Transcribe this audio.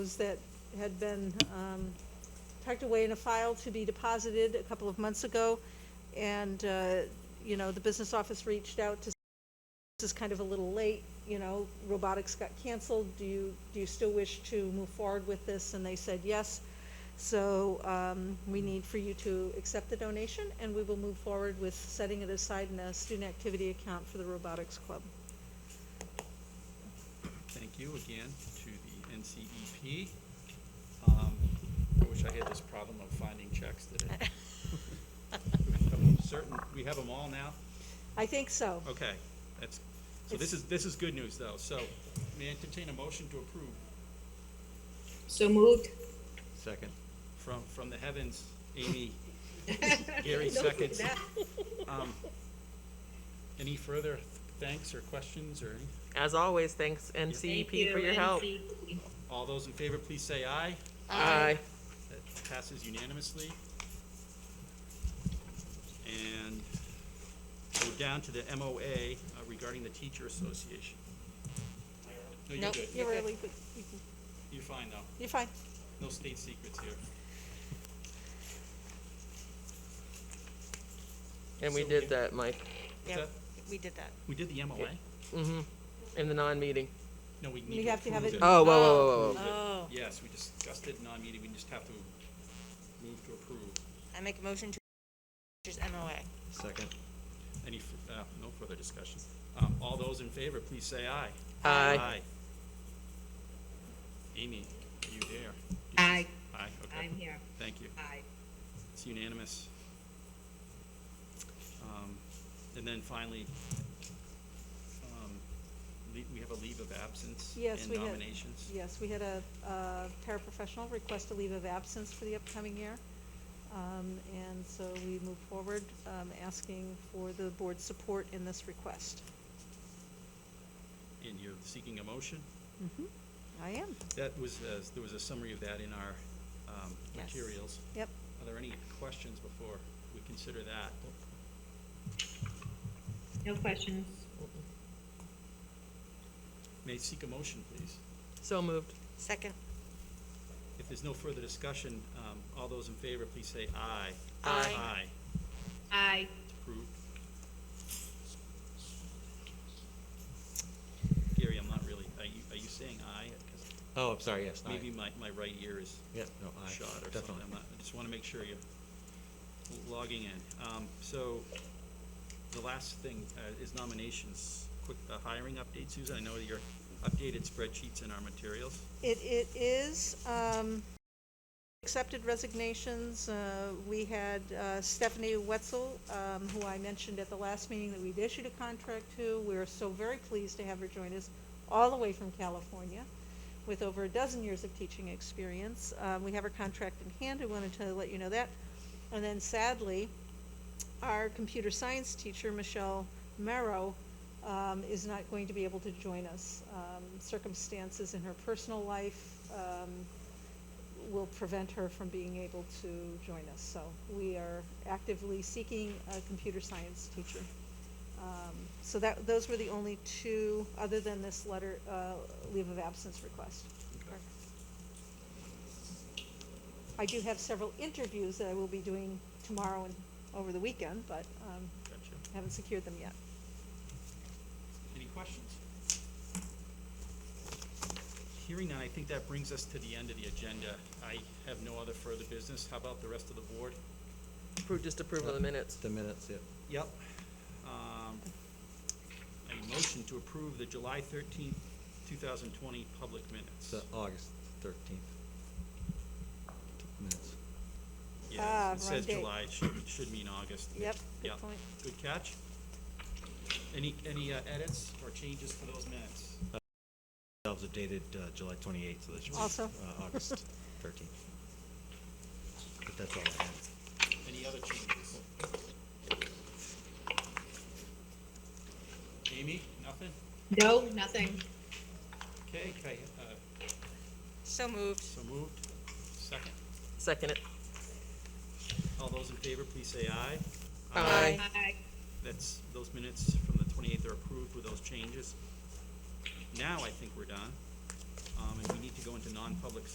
that had been um, tucked away in a file to be deposited a couple of months ago. And, uh, you know, the business office reached out to, this is kind of a little late, you know, robotics got canceled. Do you, do you still wish to move forward with this? And they said yes. So um, we need for you to accept the donation and we will move forward with setting it aside in a student activity account for the robotics club. Thank you again to the NCEP. Um, I wish I had this problem of finding checks today. Certain, we have them all now? I think so. Okay, that's, so this is, this is good news though. So may I entertain a motion to approve So moved. Second. from, from the heavens, Amy, Gary seconds. Um, Any further thanks or questions or any? As always, thanks NCEP for your E help. All those in favor, please say aye. Aye. That passes unanimously. And we're down to the MOA uh, regarding the teacher association. No, you're Nope. good. You're Okay. really, good. You can- You're fine though. you're fine. No state secrets here. And we So did we- that, Mike, Is Yeah, that- we did that. We did the MOA? in the non-meeting. No, we We need to have to have approve it- it. Oh, whoa, whoa, whoa, whoa, whoa. Oh. Yes, we discussed it in non-meeting. We just have to move to approve. I make a motion to teachers MOA. Second. Any, f- uh, no further discussion. Um, All those in favor, please say aye. Aye. Amy, are you there? Aye, Aye, okay. I'm here. Thank you. Aye. It's unanimous. Um, And then finally, um, le- we have a leave of absence Yes, and we had- nominations. Yes, we had a uh, paraprofessional request a leave of absence for the upcoming year. Um, And so we move forward, um, asking for the board's support in this request. And you're seeking a motion? I am, That was, uh, there was a summary of that in our um, Yes. materials. yep. Are there any questions before we consider that? No questions. May I seek a motion, please? So moved. Second, If there's no further discussion, um, all those in favor, please say aye. Aye. Aye. Aye. Approved. Gary, I'm not really, are you, are you saying aye? 'Cause Oh, I'm sorry, yes, aye. Maybe my, my right ear is Yeah, no, aye. shot or something. Definitely. I'm not, I just want to make sure you're logging in. Um, so the last thing uh, is nominations. Quick, uh, hiring update, Susan. I know your updated spreadsheet's in our materials. It, it is, um, accepted resignations, uh, we had uh, Stephanie Wetzel, um, who I mentioned at the last meeting that we'd issued a contract to. We're so very pleased to have her join us, all the way from California, with over a dozen years of teaching experience. Uh, we have her contract in hand, I wanted to let you know that. And then sadly, our computer science teacher, Michelle Merrow, um, is not going to be able to join us. Um, circumstances in her personal life, um, will prevent her from being able to join us. So we are actively seeking a computer science teacher. Um, So that, those were the only two, other than this letter, uh, leave of absence request. I do have several interviews that I will be doing tomorrow and over the weekend, but um, Gotcha. haven't secured them yet. Any questions? Hearing none, I think that brings us to the end of the agenda. I have no other further business. How about the rest of the board? Approved, just approve of the minutes. The minutes, yeah. Yep. Um, A motion to approve the July thirteenth, two thousand twenty public minutes. It's uh, August thirteenth. Minutes. Ah, Yeah, it says wrong date. July, it should, it should mean August. Yep, Yeah. good point. Good catch. Any, any uh, edits or changes to those minutes? That was dated uh, July twenty-eighth, so that should be. Also. uh, August thirteenth. But that's all I have. Any other changes? Amy, nothing? No, nothing. Okay, okay, uh, so moved. so moved. Second. Second it. All those in favor, please say aye. Aye. Aye. That's, those minutes from the twenty-eighth are approved with those changes. Now I think we're done, um, and we need to go into non-public